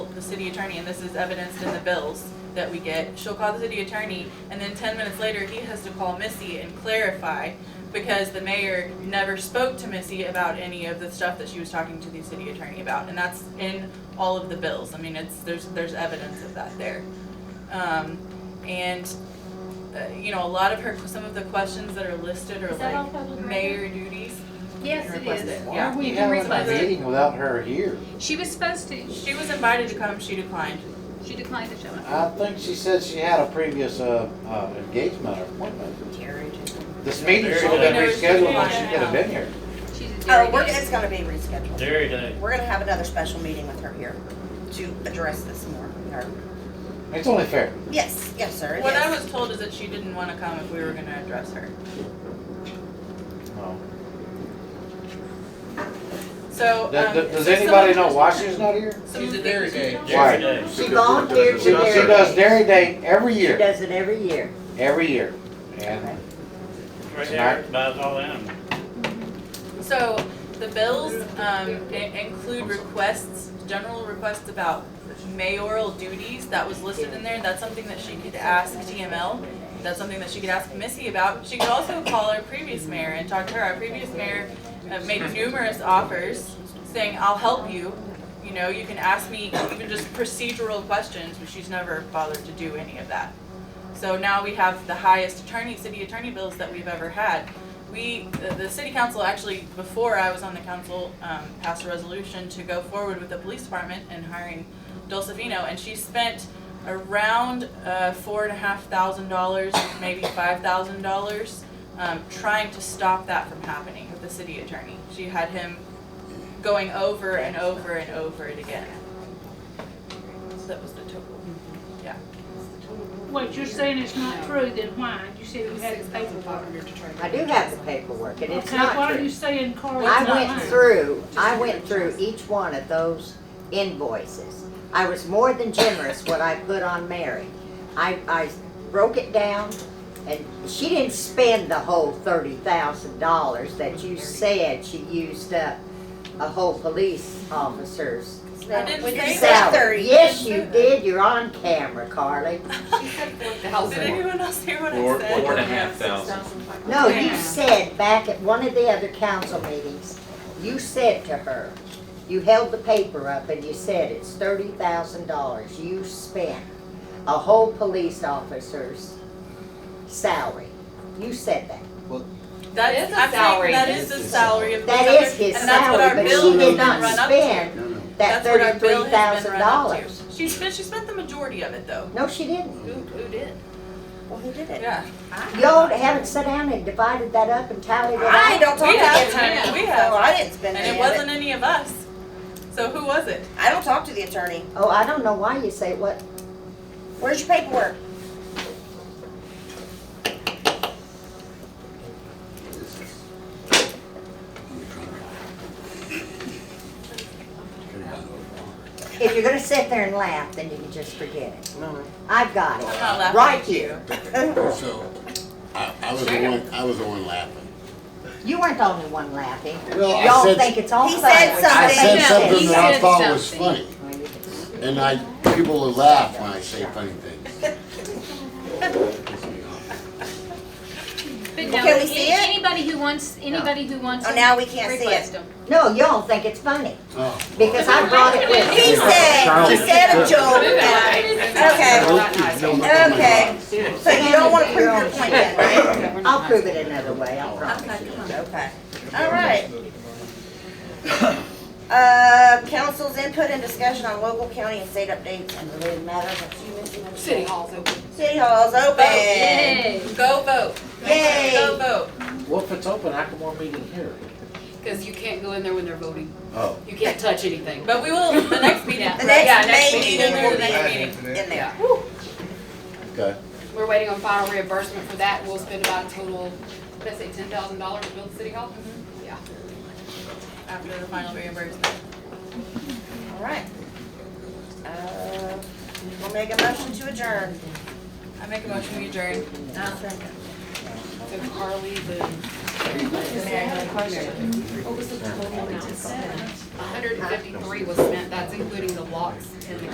the city attorney, and this is evidenced in the bills that we get. She'll call the city attorney, and then ten minutes later, he has to call Missy and clarify because the mayor never spoke to Missy about any of the stuff that she was talking to the city attorney about, and that's in all of the bills. I mean, it's, there's, there's evidence of that there. Um, and, uh, you know, a lot of her, some of the questions that are listed are Is that all like public mayor duties. Yes, it Request it. is. Why Why are we You can having a request it. meeting without her here? She was supposed to, She was invited to come, she declined. she declined to show up. I think she said she had a previous uh, uh, engagement or appointment. Oh, This meeting should have been There is- rescheduled when she could have been here. She's a Oh, we're, dairy it's gonna be rescheduled. Dairy Day. We're gonna have another special meeting with her here to address this more. with her. It's only fair. Yes, yes, sir, What I yes. was told is that she didn't wanna come if we were gonna address her. No. So, um. Does- Does so anybody some- know why she's not here? some- She's a dairy day. Why? Dairy Day. She volunteered She she does Dairy Day every She year, does it every year. every year. And Right there, buys all animals. So the bills um, i- include requests, general requests about mayoral duties that was listed in there. That's something that she could ask TML. That's something that she could ask Missy about. She could also call our previous mayor and talk to her. Our previous mayor uh, made numerous offers saying, I'll help you. You know, you can ask me even just procedural questions, but she's never bothered to do any of that. So now we have the highest attorney, city attorney bills that we've ever had. We, the, the city council actually, before I was on the council, um, passed a resolution to go forward with the police department and hiring Dulcifino, and she spent around, uh, four and a half thousand dollars, maybe five thousand dollars, um, trying to stop that from happening with the city attorney. She had him going over and over and over it again. So that was the total. What you're saying is not true, then why? You said you had the paperwork. I do have the paperwork, and it's Okay, not why are true. you saying Carl I not went lying? through, I went through each one of those invoices. I was more than generous what I put on Mary. I, I broke it down, and she didn't spend the whole thirty thousand dollars that you said she used up a whole police officer's I didn't When you say said that. salary. thirty. Yes, you did, you're on camera, Carly. Did anyone else hear what I Four, said? four and a half thousand. No, you Yeah. said back at one of the other council meetings, you said to her, you held the paper up and you said it's thirty thousand dollars you spent, a whole police officer's salary. You said that. That is a salary. That is the salary of the. That other- is his and that's what our salary, but bill she has did been not run up to. spend that That's what our bill thirty-three has been thousand run up to. dollars. She spent, she spent the majority of it though. No, she didn't. Who, who did? Well, who did it? Yeah. Y'all haven't sat down and divided that up and tallied it I up? don't talk We to have, the attorney. we have. So I didn't spend And any it of wasn't it. any of us. So who was it? I don't talk to the attorney. Oh, I don't know why you say what, Where's your paperwork? if you're gonna sit there and laugh, then you can just forget it. I've got I'm it, not laughing. right at here. So, I, I was the one, I was the one laughing. You weren't the only one laughing. Well, I Y'all said- think it's all He funny. said I said something. know. something He that I said thought was funny, something. and I, people will laugh when I say funny things. But Well, no, can we see any- it? Anybody who wants, anybody who wants. Oh, them, now we can't see request it. them. No, y'all think it's funny Oh, because I brought it with me. He said, he said a joke. Okay, okay. So you don't wanna prove your point yet, right? I'll prove it another way, I promise. Okay, come on. Okay, all right. Uh, council's input and discussion on local, county, and state updates and related matters. City hall's open. City hall's open. Yay. Go vote. Yay. Go vote. Well, if it's open, I can more meeting here. Because you can't go in there when they're voting. Oh. You can't touch anything. But we will, the next meeting. Yeah. The Yeah, next next May meeting, meeting the will next be meeting. in there. Okay. We're waiting on final reimbursement for that. We'll spend about a total, what did I say, ten thousand dollars to build City Hall? Mm-hmm. Yeah. After the final reimbursement. All right. Uh, We'll make a motion to adjourn. I make a motion we adjourn. So uh, Carly, the. What was the total amount spent? hundred and fifty-three was spent. That's including the locks and the